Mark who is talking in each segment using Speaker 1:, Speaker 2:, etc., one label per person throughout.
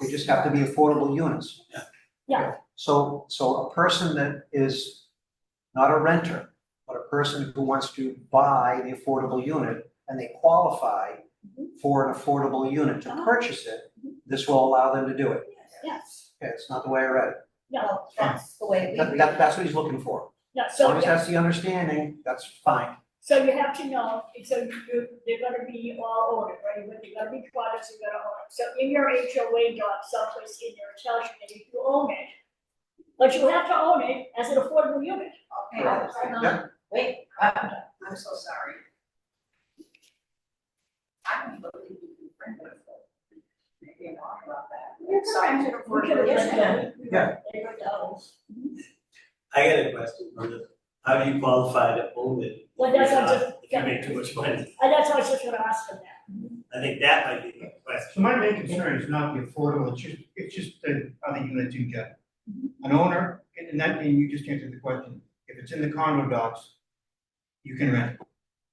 Speaker 1: They just have to be affordable units.
Speaker 2: Yeah.
Speaker 3: Yeah.
Speaker 1: So, so a person that is not a renter, but a person who wants to buy the affordable unit and they qualify for an affordable unit to
Speaker 3: Mm-hmm. Ah. Mm-hmm.
Speaker 1: purchase it, this will allow them to do it.
Speaker 3: Yes,
Speaker 1: Okay, it's not the way I read it.
Speaker 4: No, that's the way we
Speaker 1: That,
Speaker 4: read
Speaker 1: that,
Speaker 4: it.
Speaker 1: that's what he's looking for.
Speaker 3: yeah,
Speaker 1: As long
Speaker 3: so,
Speaker 1: as that's the understanding, that's fine.
Speaker 3: so you have to know, so you, they're gonna be all ordered, right? They're gonna be products you're gonna own. So in your HOA doc, someplace in there, it tells you that if you own it, but you have to own it as an affordable unit.
Speaker 4: Okay, hold on.
Speaker 1: Yeah.
Speaker 4: Wait, I'm, I'm so sorry. I don't believe you can print it. Maybe I'm wrong about that.
Speaker 3: It's
Speaker 4: Sorry, I'm
Speaker 3: We can
Speaker 4: Yes,
Speaker 3: rent
Speaker 4: ma'am.
Speaker 3: them.
Speaker 1: Yeah.
Speaker 3: They rent out.
Speaker 2: I got a question, Brenda. How do you qualify to own it?
Speaker 3: Well, that's what I'm
Speaker 2: If
Speaker 3: just-
Speaker 2: you make too much money,
Speaker 3: And that's why I was just gonna ask them that.
Speaker 2: I think that might be the question.
Speaker 5: So my main concern is not the affordable, it's just, it's just the other units in general. An owner, and that, and you just answered the question, if it's in the condo docs, you can rent.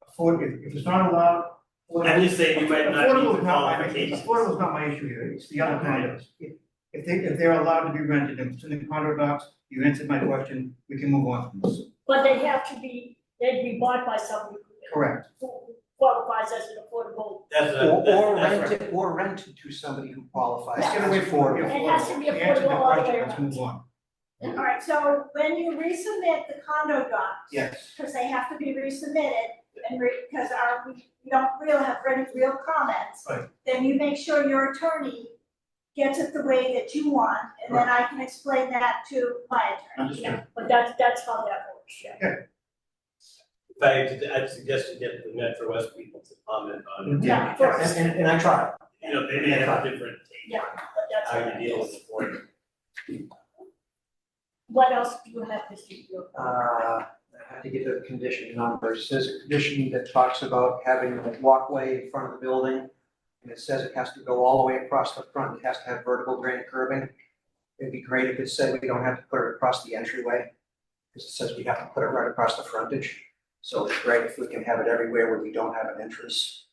Speaker 5: Afford, if, if it's not allowed. affordable-
Speaker 2: I'm just saying you might not meet
Speaker 5: Affordable
Speaker 2: the
Speaker 5: is not my,
Speaker 2: qualifications.
Speaker 5: affordable is not my issue here, it's the other condos. If- If they, if they're allowed to be rented, and it's in the condo docs, you answered my question, we can move on from this.
Speaker 3: But they have to be, they'd be bought by someone who-
Speaker 5: Correct,
Speaker 3: who qualifies as an affordable.
Speaker 2: That's what,
Speaker 1: Or,
Speaker 2: I'm- that's,
Speaker 1: or
Speaker 2: Uh, that's
Speaker 1: rent
Speaker 2: right.
Speaker 1: it, or rent it to somebody who qualifies
Speaker 5: let's
Speaker 1: as
Speaker 5: get away from the
Speaker 1: affordable.
Speaker 5: affordable.
Speaker 3: It has to be
Speaker 5: You answered my
Speaker 3: affordable all the way
Speaker 5: question, Let's
Speaker 3: around.
Speaker 5: move on,
Speaker 4: Yeah.
Speaker 6: All right, so when you resubmit the condo docs.
Speaker 5: yes.
Speaker 6: Because they have to be resubmitted and re, because our, we we don't really have any real comments.
Speaker 5: Right.
Speaker 6: Then you make sure your attorney gets it the way that you want, and then I can explain that to my attorney.
Speaker 5: Understood.
Speaker 3: But that's, that's how that works, yeah.
Speaker 2: If I, did- I'd suggest you get the Metro West people to comment on it.
Speaker 3: Yeah,
Speaker 1: And,
Speaker 3: first,
Speaker 1: and- and I tried.
Speaker 2: You know, they may have a different take
Speaker 3: yeah, but that's.
Speaker 2: on
Speaker 3: all
Speaker 2: how
Speaker 3: right.
Speaker 2: you deal with it for you.
Speaker 3: What else do you have, Mr. Yocum?
Speaker 1: uh, I had to get the condition numbers, says a condition that talks about having a walkway in front of the building. And it says it has to go all the way across the front, it has to have vertical granite curbing. It'd be great if it said we don't have to put it across the entryway, because it says we have to put it right across the frontage. So it's great if we can have it everywhere where we don't have an entrance.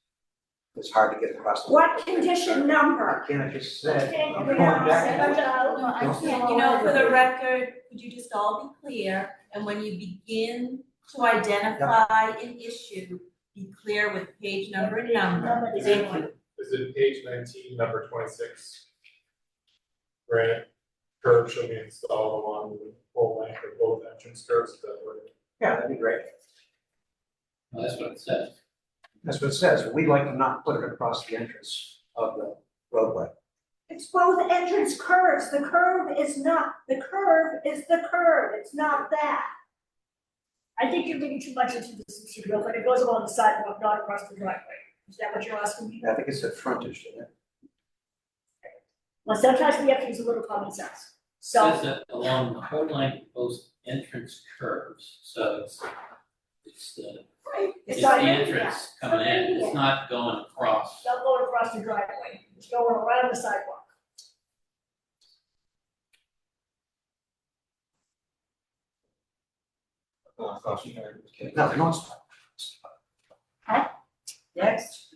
Speaker 1: It's hard to get across the.
Speaker 6: What condition number?
Speaker 1: Can I just said,
Speaker 3: Okay,
Speaker 1: I'm
Speaker 3: we
Speaker 1: going
Speaker 3: are
Speaker 1: back.
Speaker 3: set, but, uh,
Speaker 4: No, I
Speaker 1: Don't-
Speaker 4: can't, you know, for the record, could you just all be clear, and when you begin to identify an issue, be clear with page number and number.
Speaker 3: Number is-
Speaker 4: Thank you.
Speaker 7: Is it page nineteen, number twenty-six? Granite curb shall be installed along the full length of both entrance curves, that were
Speaker 1: Yeah, that'd be great.
Speaker 8: Well, that's what it says.
Speaker 1: That's what it says, we'd like to not put it across the entrance of the roadway.
Speaker 6: It's both entrance curves, the curve is not, the curve is the curve, it's not that.
Speaker 3: I think you're reading too much into this, Mr. Yocum, it goes along the sidewalk, not across the driveway. Is that what you're asking me?
Speaker 1: I think it's at frontage, didn't it?
Speaker 3: Well, sometimes we have to use a little common sense,
Speaker 8: It
Speaker 3: so,
Speaker 8: says that along the whole length of both entrance curves, so it's, it's the,
Speaker 6: Right.
Speaker 8: it's the
Speaker 3: not in,
Speaker 8: entrance
Speaker 3: yeah.
Speaker 8: coming in,
Speaker 3: Yeah.
Speaker 8: it's not going across.
Speaker 3: not going across the driveway, it's going around the sidewalk.
Speaker 1: No, no, it's-
Speaker 4: Next.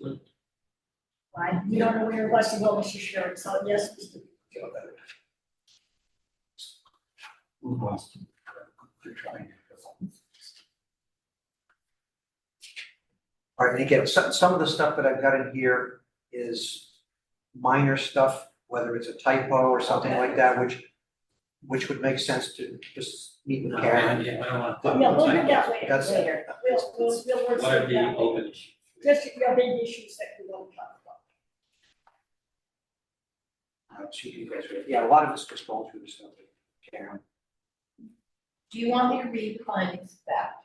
Speaker 3: Right, you don't know where your western wellness is sharing, so yes, Mr. Gilbert.
Speaker 1: All right, and again, some, some of the stuff that I've got in here is minor stuff, whether it's a typo or something like that, which, which would make sense to just meet with
Speaker 8: No,
Speaker 1: Karen.
Speaker 8: yeah, I don't want to.
Speaker 3: Yeah, we'll do that later,
Speaker 1: That's-
Speaker 3: later, we'll, we'll, we'll work
Speaker 8: What are
Speaker 3: through
Speaker 8: the
Speaker 3: that.
Speaker 8: open issues?
Speaker 3: Just your big issues that we want to talk about.
Speaker 1: Uh, she can go through it. Yeah, a lot of it's just going through stuff with Karen.
Speaker 4: Do you want me to read the findings of fact?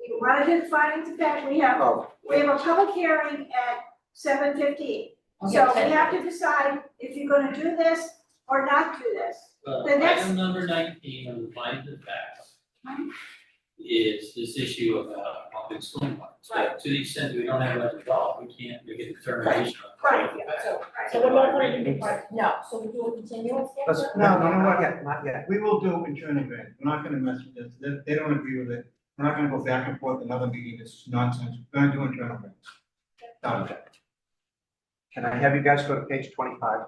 Speaker 6: You wanted to find the fact, we have
Speaker 1: Oh,
Speaker 6: We have a public hearing at seven fifteen, so we have to decide if you're gonna do this or not do this.
Speaker 8: Well,
Speaker 6: The next-
Speaker 8: uh, item number nineteen on the findings of facts is this issue about public stormwater. So to the extent we don't have that resolved, we can't make a determination on.
Speaker 6: Right,
Speaker 4: So,
Speaker 3: So we're not going to do part
Speaker 4: no, so we do a continuance here?
Speaker 1: let's,
Speaker 5: No,
Speaker 1: no,
Speaker 5: no, no,
Speaker 1: not
Speaker 5: no.
Speaker 1: yet, not yet.
Speaker 5: We will do internal grant, we're not gonna mess with this, they, they don't agree with it, we're not gonna go back and forth another meeting, this is nonsense, we're gonna do internal grant. Done.
Speaker 1: Can I have you guys go to page twenty-five?